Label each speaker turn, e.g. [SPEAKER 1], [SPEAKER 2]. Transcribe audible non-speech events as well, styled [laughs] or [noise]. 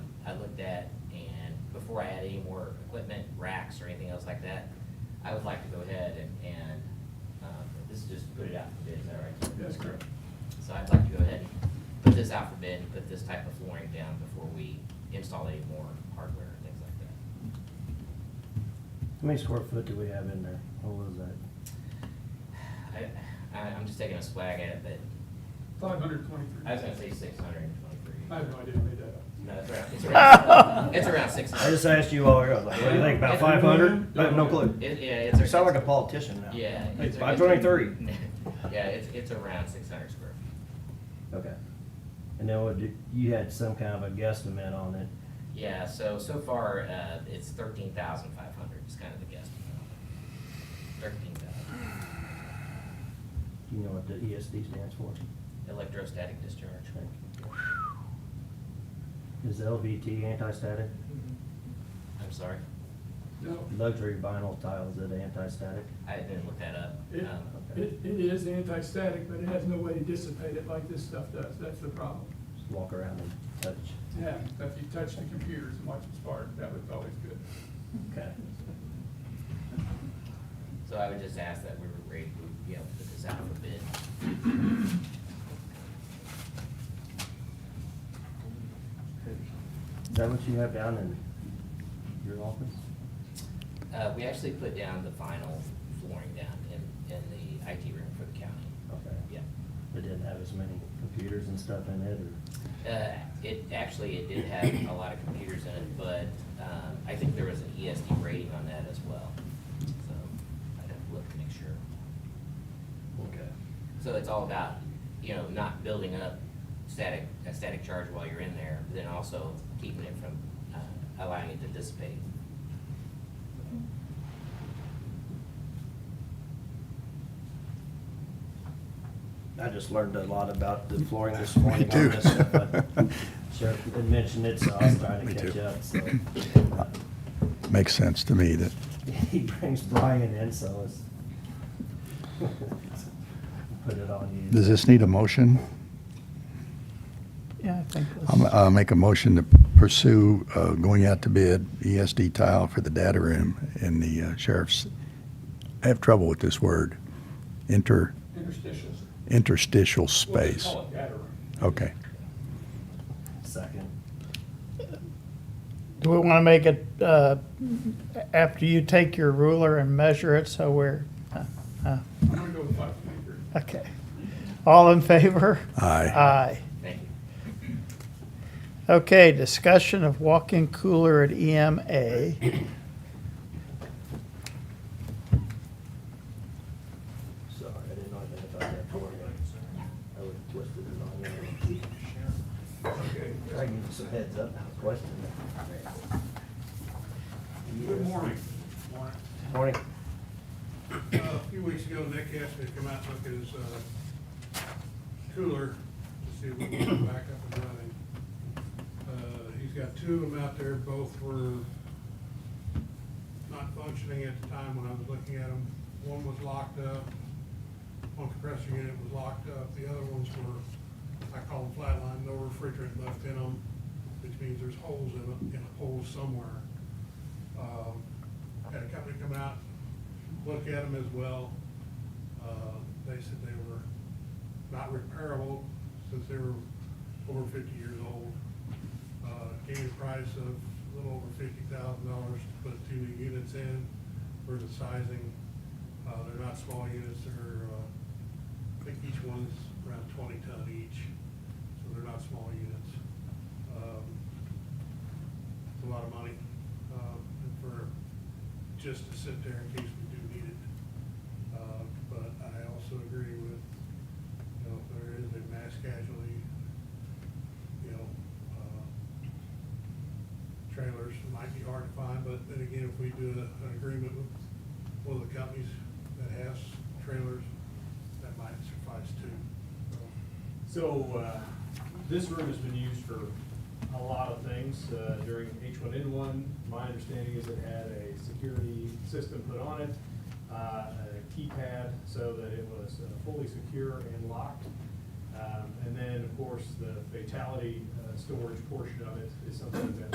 [SPEAKER 1] before I had any more equipment, racks or anything else like that, I would like to go ahead and, and, um, this is just put it out for bid, is that right?
[SPEAKER 2] That's correct.
[SPEAKER 1] So I'd like to go ahead and put this out for bid, and put this type of flooring down before we install any more hardware and things like that.
[SPEAKER 3] How many square foot do we have in there? What was that?
[SPEAKER 1] [sighs] I, I, I'm just taking a swag at it, but
[SPEAKER 2] Five hundred twenty-three.
[SPEAKER 1] I was gonna say six hundred and twenty-three.
[SPEAKER 2] I have no idea, I made that up.
[SPEAKER 1] No, it's around,
[SPEAKER 4] [laughs]
[SPEAKER 1] it's around, it's around six hundred.
[SPEAKER 3] I just asked you all, I was like, what do you think, about
[SPEAKER 1] Yeah.
[SPEAKER 3] five hundred? I have no clue.
[SPEAKER 1] It, yeah, it's.
[SPEAKER 3] You sound like a politician now.
[SPEAKER 1] Yeah.
[SPEAKER 3] Hey,
[SPEAKER 1] it's-
[SPEAKER 3] five twenty-three.
[SPEAKER 1] [laughs] Yeah, it's, it's around six hundred square feet.
[SPEAKER 3] Okay. And then what, did- you had some kind of a guesstimate on it.
[SPEAKER 1] Yeah, so, so far, uh, it's thirteen thousand five hundred is kind of the guess. Thirteen thousand,
[SPEAKER 3] Do you know what the ESD stands for?
[SPEAKER 1] electrostatic discharge.
[SPEAKER 3] Thank you. Is LVT anti-static?
[SPEAKER 1] I'm sorry,
[SPEAKER 2] No,
[SPEAKER 3] Luxury vinyl tiles that are anti-static?
[SPEAKER 1] I didn't look that up.
[SPEAKER 2] it,
[SPEAKER 1] Um,
[SPEAKER 2] it, it is anti-static, but it has no way to dissipate it like this stuff does, that's the problem.
[SPEAKER 3] Just walk around and touch.
[SPEAKER 2] Yeah, if you touch the computers and watch them spark, that was always good.
[SPEAKER 3] Okay.
[SPEAKER 1] So I would just ask that we were ready, to be able to put this out for bid.
[SPEAKER 3] Is that what you have down in your office?
[SPEAKER 1] Uh, we actually put down the final flooring down in, in the IT room for the county.
[SPEAKER 3] Okay.
[SPEAKER 1] Yeah.
[SPEAKER 3] It didn't have as many computers and stuff in it, or?
[SPEAKER 1] Uh, It, actually, it did have a lot of computers in it, but um, I think there was an ESD rating on that as well. So I'd have to look to make sure.
[SPEAKER 3] Okay.
[SPEAKER 1] So it's all about, you know, not building up static, a static charge while you're in there, but then also keeping it from uh, allowing it to dissipate.
[SPEAKER 3] I just learned a lot about the [laughs] flooring this morning.
[SPEAKER 5] Me too.
[SPEAKER 3] on this, but Sheriff had mentioned it, so I was trying to
[SPEAKER 5] Me
[SPEAKER 3] catch
[SPEAKER 5] too.
[SPEAKER 3] up, so.
[SPEAKER 5] [laughs]
[SPEAKER 3] [laughs]
[SPEAKER 5] Makes sense to me that,
[SPEAKER 3] He brings Brian in, so it's. [laughs] Put it on you.
[SPEAKER 5] does this need a motion?
[SPEAKER 6] Yeah, I think.
[SPEAKER 5] I'm- I'll make a motion to pursue uh, going out to bid ESD tile for the data room in the uh, sheriff's, I have trouble with this word, inter,
[SPEAKER 2] Interstitials.
[SPEAKER 5] interstitial
[SPEAKER 2] We'll just
[SPEAKER 5] space.
[SPEAKER 2] call it data room.
[SPEAKER 5] Okay.
[SPEAKER 3] Second.
[SPEAKER 6] Do we want to make it, uh, after you take your ruler and measure it, so we're, uh, uh,
[SPEAKER 2] I'm gonna go with five twenty-three.
[SPEAKER 6] okay. All in favor?
[SPEAKER 5] Aye.
[SPEAKER 6] Aye.
[SPEAKER 1] Thank you.
[SPEAKER 6] Okay, discussion of walk-in cooler at E EMA.
[SPEAKER 3] Sorry, I didn't identify that for you. I would have twisted it on you. I give you some heads up, now, question.
[SPEAKER 7] Good morning. Morning.
[SPEAKER 3] Morning.
[SPEAKER 7] Uh, A few weeks ago, Nick asked me to come out and look at his uh, cooler to see if we can get it back up and running. Uh, He's got two of them out there, both were not functioning at the time when I was looking at them. One was locked up, one compressor unit was locked up, the other ones were, I call them flatline, no refrigerant left in them, which means there's holes in them, in a hole somewhere. Um, Had a company come out, look at them as well. Uh, They said they were not repairable since they were over fifty years old. Uh, Gave a price of a little over fifty thousand dollars to put two new units in for the sizing. Uh, They're not small units, they're, uh, I think each one's around twenty ton each, so they're not small units. Um, it's a lot of money, um, and for, just to sit there in case we do need it. Uh, but I also agree with, you know, if there is a mass casualty, you know, uh, trailers might be hard to find, but then again, if we do a- an agreement with one of the companies that has trailers, that might suffice too. So,
[SPEAKER 4] So, uh, this room has been used for a lot of things, uh, during H one N one. My understanding is it had a security system put on it, uh, a keypad so that it was uh, fully secure and locked. Um, and then, of course, the fatality, uh, storage portion of it is something that